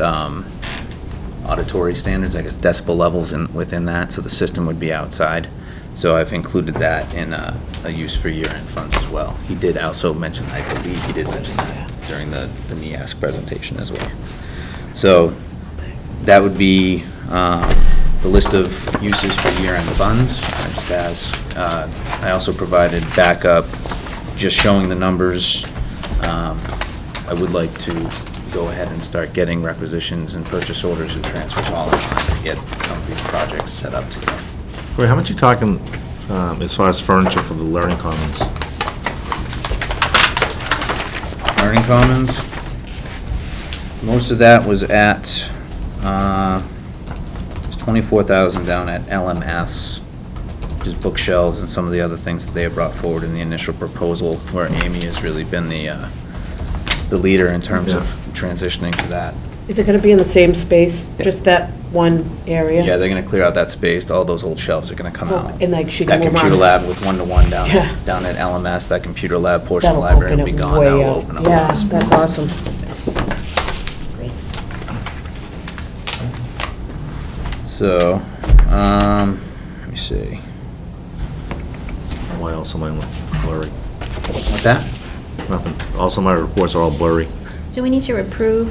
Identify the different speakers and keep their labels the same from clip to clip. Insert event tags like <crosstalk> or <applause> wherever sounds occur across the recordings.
Speaker 1: um, auditory standards, I guess decibel levels in, within that, so the system would be outside. So I've included that in uh, a use for year-end funds as well. He did also mention, I believe he did mention that during the, the NEAS presentation as well. So that would be uh, the list of uses for year-end funds. I just asked, uh, I also provided backup, just showing the numbers. Um, I would like to go ahead and start getting requisitions and purchase orders and transfers all in line to get some of these projects set up to go.
Speaker 2: Wait, how much you talking um, as far as furniture for the learning commons?
Speaker 1: Learning Commons. Most of that was at, uh, it's 24,000 down at LMS, which is bookshelves and some of the other things that they had brought forward in the initial proposal, where Amy has really been the, uh, the leader in terms of
Speaker 2: Yeah.
Speaker 1: transitioning to that.
Speaker 3: Is it going to be in the same space, just that one area?
Speaker 1: Yeah, they're gonna clear out that space, all those old shelves are gonna come
Speaker 3: Oh,
Speaker 1: out.
Speaker 3: and, like, she can move
Speaker 1: That computer
Speaker 3: on.
Speaker 1: lab with one-to-one down,
Speaker 3: Yeah.
Speaker 1: down at LMS, that computer lab portion of the
Speaker 3: That'll
Speaker 1: library
Speaker 3: open
Speaker 1: will be
Speaker 3: it
Speaker 1: gone,
Speaker 3: way
Speaker 1: that'll
Speaker 3: up.
Speaker 1: open up.
Speaker 3: Yeah,
Speaker 1: this.
Speaker 3: that's awesome.
Speaker 1: So, um, let me see.
Speaker 2: Why else am I blurry?
Speaker 1: What's that?
Speaker 2: Nothing. Also, my reports are all blurry.
Speaker 4: Do we need to approve?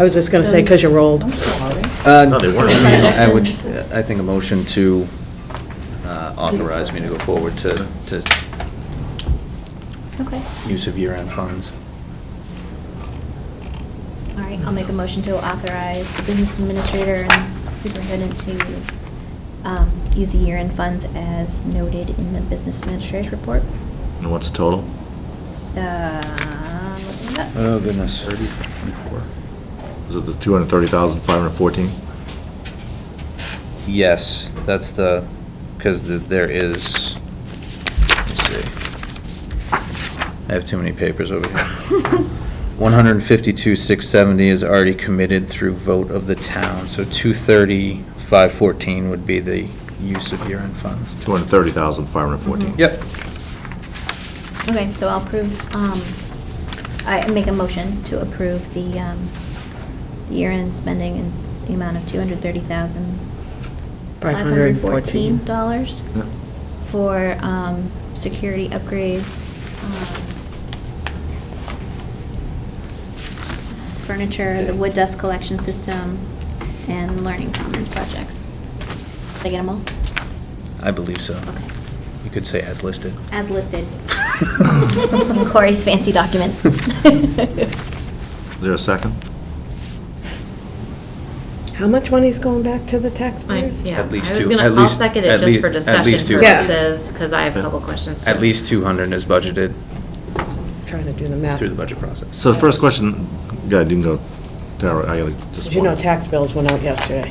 Speaker 3: I was just going to say, because you're old.
Speaker 4: I'm sorry.
Speaker 2: No, they weren't.
Speaker 1: Uh, I would, I think a motion to uh, authorize me to go forward to, to
Speaker 4: Okay,
Speaker 1: use of year-end funds.
Speaker 4: all right, I'll make a motion to authorize the business administrator and superintendent to um, use the year-end funds as noted in the business administrator's report.
Speaker 2: And what's the total?
Speaker 4: Um, looking it up.
Speaker 1: Oh, goodness.
Speaker 2: Is it the 230,514?
Speaker 1: Yes, that's the, because there is, let's see. I have too many papers over <laughs> here. 152,670 is already committed through vote of the town, so 230,514 would be the use of year-end funds.
Speaker 2: 230,514.
Speaker 1: Yep.
Speaker 4: Okay, so I'll approve, um, I make a motion to approve the um, the year-end spending in the amount of $230,514.
Speaker 2: Yeah.
Speaker 4: for um, security upgrades, um, furniture, the wood dust collection system, and learning commons projects. Did I get them all?
Speaker 1: I believe so.
Speaker 4: Okay.
Speaker 1: You could say as listed.
Speaker 4: As listed in Corey's fancy document.
Speaker 2: Is there a second?
Speaker 3: How much money's going back to the
Speaker 5: I-
Speaker 3: taxpayers?
Speaker 5: Yeah, I
Speaker 1: At least
Speaker 5: was
Speaker 1: two-
Speaker 5: gonna,
Speaker 1: at
Speaker 5: I'll
Speaker 1: least-
Speaker 5: second
Speaker 1: at
Speaker 5: it just
Speaker 1: least-
Speaker 5: for
Speaker 1: at
Speaker 5: discussion
Speaker 1: least two.
Speaker 3: Yeah.
Speaker 5: purposes, because I have a couple questions.
Speaker 1: At
Speaker 5: too.
Speaker 1: least 200 is budgeted
Speaker 3: Trying to do the math.
Speaker 1: through the budget process.
Speaker 2: So the first question, go ahead, you can go, Tara, I gotta just.
Speaker 3: Did you know
Speaker 2: one.
Speaker 3: tax bills went out yesterday?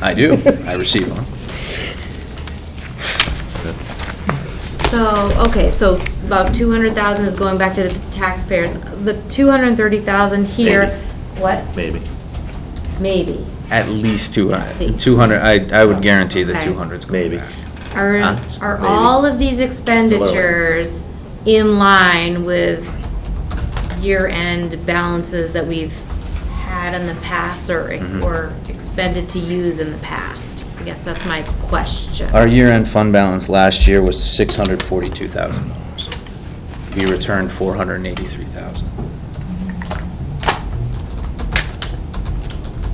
Speaker 1: I
Speaker 3: <laughs>
Speaker 1: do, <laughs> I receive them.
Speaker 5: So, okay, so about two hundred thousand is going back to the taxpayers. The two hundred and thirty thousand here,
Speaker 2: Maybe.
Speaker 5: what?
Speaker 2: Maybe.
Speaker 5: Maybe.
Speaker 1: At least 200.
Speaker 5: least.
Speaker 1: 200, I, I would guarantee that
Speaker 5: Okay.
Speaker 1: 200's going
Speaker 2: Maybe.
Speaker 1: back. Huh?
Speaker 5: Are, are
Speaker 2: Maybe.
Speaker 5: all of these expenditures in line with year-end balances that we've had in the past or,
Speaker 1: Mhm.
Speaker 5: or expended to use in the past? I guess that's my question.
Speaker 1: Our year-end fund balance last year was $642,000. We returned 483,000.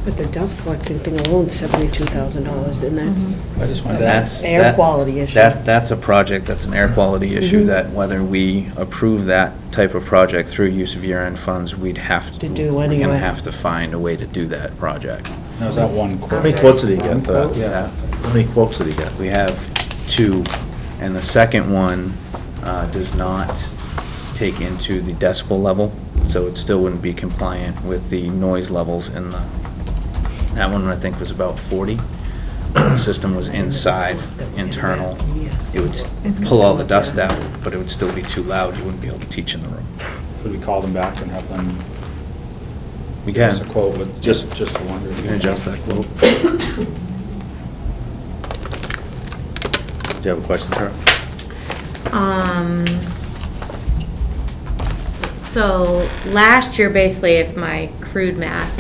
Speaker 3: But the dust collecting thing alone, $72,000, and that's,
Speaker 1: I just
Speaker 3: wanted to- That's air quality issue.
Speaker 1: That, that's a project, that's an air quality issue, that whether we approve that type of project through use of year-end funds, we'd have to.
Speaker 3: To do
Speaker 1: We're
Speaker 3: anyway.
Speaker 1: gonna have to find a way to do that project.
Speaker 6: That was that one quote.
Speaker 2: How many quotes did he get uh? for that?
Speaker 1: Yeah.
Speaker 2: How many quotes did he get?
Speaker 1: We have two, and the second one uh, does not take into the decibel level, so it still wouldn't be compliant with the noise levels in the, that one I think was about 40. The system was inside, internal. It would s- pull all the dust out, but it would still be too loud. You wouldn't be able to teach in the room.
Speaker 6: Could we call them back and have them?
Speaker 1: We
Speaker 6: give us
Speaker 1: can.
Speaker 6: a quote with, just, just a wonder.
Speaker 1: You can adjust that quote.
Speaker 2: Do you have a question, Tara?
Speaker 5: Um, so last year, basically, if my crude math,